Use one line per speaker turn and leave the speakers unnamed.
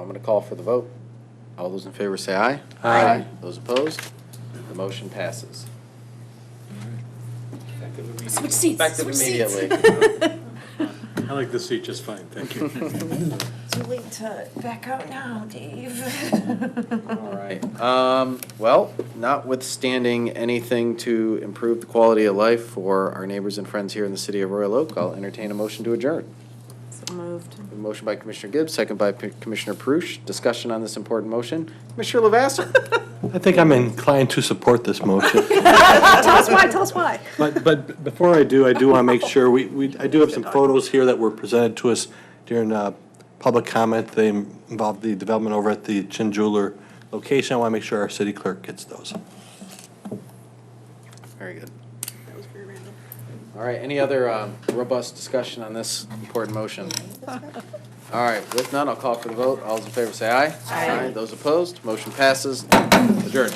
I'm going to call for the vote. All those in favor say aye.
Aye.
Those opposed? The motion passes.
Switch seats,
Effective
switch seats.
immediately.
I like this seat just fine, thank you.
Too late to back out now, Dave.
All right. Um, well, notwithstanding anything to improve the quality of life for our neighbors and friends here in the city of Royal Oak, I'll entertain a motion to adjourn.
So moved.
A Motion by Commissioner Gibbs, second by P- Commissioner Perush. Discussion on this important motion. Commissioner Lavasser?
I think I'm inclined to support this motion.
Ah, Tell us why, tell us why.
But, but before I do, I do want to make sure, we, we, I do have some photos here that were presented to us during, uh, public comment. They involve the development over at the Chin Jeweler location. I want to make sure our city clerk gets those.
Very good. All right, any other um, robust discussion on this important motion? All right, with none, I'll call for the vote. All those in favor say aye. Aye. Those opposed, motion passes. Adjourned.